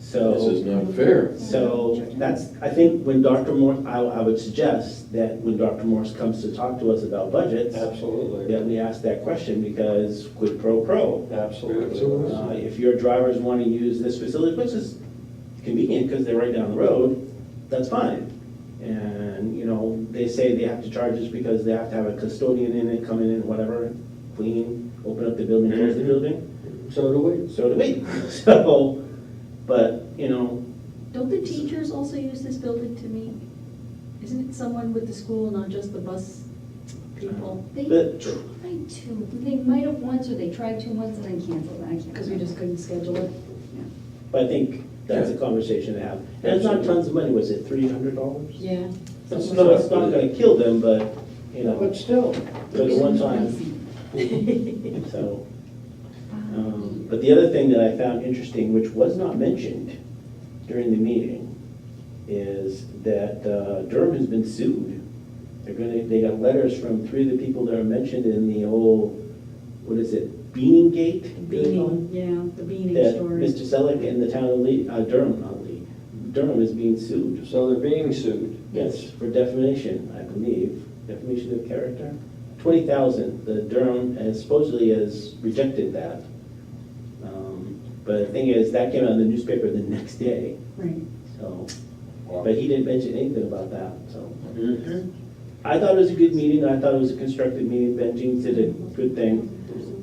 This is So, not fair. so that's, I think when Dr. Morse, I, I would suggest that when Dr. Morse comes to talk to us about budgets, Absolutely, that we ask that question because quid pro quo. absolutely. Absolutely. Uh, If your drivers want to use this facility, which is convenient because they're right down the road, that's fine. And, you know, they say they have to charge us because they have to have a custodian in it, come in and whatever, clean, open up the building, close the building, So do we. so do we. So, but, you know, Don't the teachers also use this building to meet? Isn't it someone with the school, not just the bus people? They But- tried to, they might have once, or they tried to once and then canceled, I can't. Because we just couldn't schedule it? but I think that's a conversation to have. And it's not tons of money, was it three hundred dollars? Yeah. So it's not gonna kill them, but, you know, But still, but at one time, so. Um, But the other thing that I found interesting, which was not mentioned during the meeting, is that uh, Durham has been sued. They're gonna, they got letters from three of the people that are mentioned in the whole, what is it, Beaning Gate? Beaning, yeah, the beaning um, That story. Mr. Selick and the town of Lee, uh, Durham, not Lee, Durham is being sued. so they're being sued. Yes, for defamation, I believe, defamation of character. Twenty thousand, the Durham has supposedly has rejected that. Um, But the thing is, that came out in the newspaper the next day, Right. so, but he didn't mention anything about that, so. Mm-hmm. Mhm. I thought it was a good meeting, I thought it was a constructive meeting, Benji did a good thing.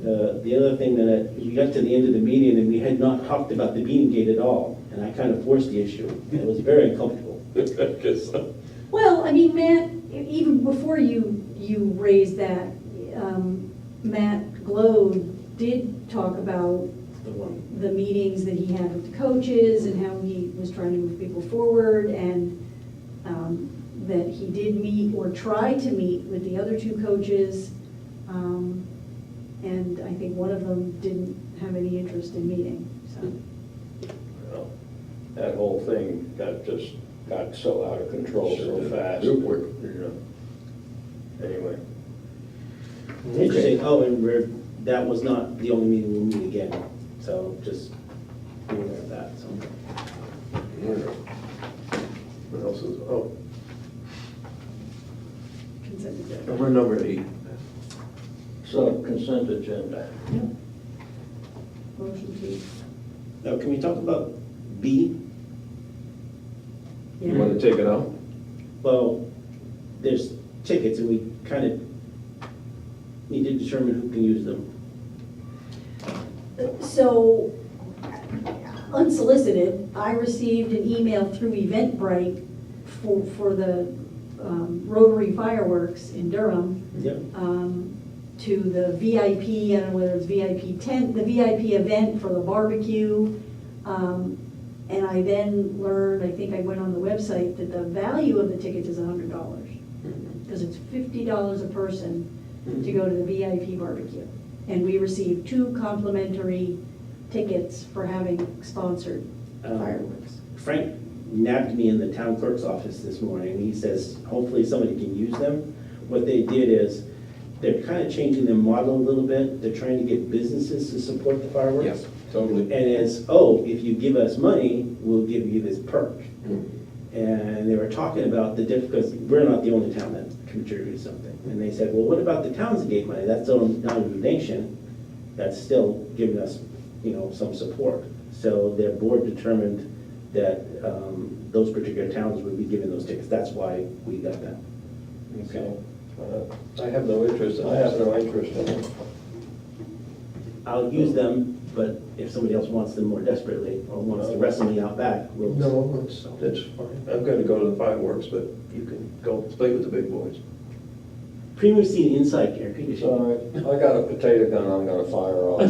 Uh, The other thing that, I- we got to the end of the meeting and we had not talked about the beating gate at all, and I kind of forced the issue, and it was very uncomfortable. Guess so. Well, I mean, Matt, e- even before you, you raised that, um, Matt Globe did talk about The one. the meetings that he had with the coaches and how he was trying to move people forward and um, that he did meet or try to meet with the other two coaches. Um, And I think one of them didn't have any interest in meeting, so. Well, That whole thing got just, got so out of control so fast. Real quick. You know. Anyway. Interesting, oh, and we're, that was not the only meeting we'll meet again, so just be aware of that, so. What else is, oh, consent agenda. number number eight. So consent agenda. Motion to, Now, can we talk about B? You yeah, want to take it out? Well, there's tickets and we kind of need to determine who can use them. So unsolicited, I received an email through Eventbrite for, for the um, Rotary fireworks in Durham Yep. um, to the VIP, I don't know whether it's VIP tent, the VIP event for the barbecue. Um, And I then learned, I think I went on the website, that the value of the tickets is hundred dollars. Because it's fifty dollars a person to go to the VIP barbecue. And we received two complimentary tickets for having sponsored Um, fireworks. Frank nabbed me in the town clerk's office this morning. He says, hopefully somebody can use them. What they did is, they're kind of changing their model a little bit. They're trying to get businesses to support the fireworks. Yes, totally. And it's, oh, if you give us money, we'll give you this perk. And they were talking about the diff, because we're not the only town that contributed something. And they said, well, what about the towns that gave money? That's still not a donation, that's still giving us, you know, some support. So their board determined that um, those particular towns would be given those tickets. That's why we got them. Okay. Uh, I have no interest, I have no interest in it. I'll use them, but if somebody else wants them more desperately, or wants to wrestle me out back, we'll. No, that's, that's fine. I'm going to go to the fireworks, but you can go play with the big boys. Premium seat inside air conditioning. Sorry, I got a potato gun I'm gonna fire off.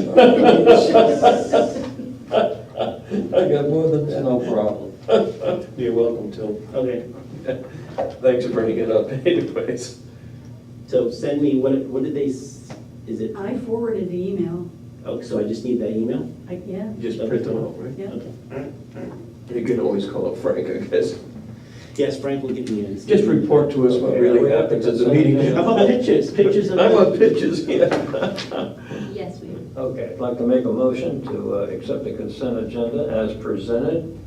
I got more than that. No problem. You're welcome, Tim. Okay, Thanks for bringing it up anyways. so send me, what, what did they, s- is it, I forwarded the email, oh, so I just need that email? I, yeah, Just print them out, right? yeah. Okay. all right, all right. You can always call up Frank, I guess. Yes, Frank will give me an. Just report to us what really happens at the meeting. How about pictures, pictures of. I want pictures, yeah. Yes, we. Okay, I'd like to make a motion to uh, accept the consent agenda as presented.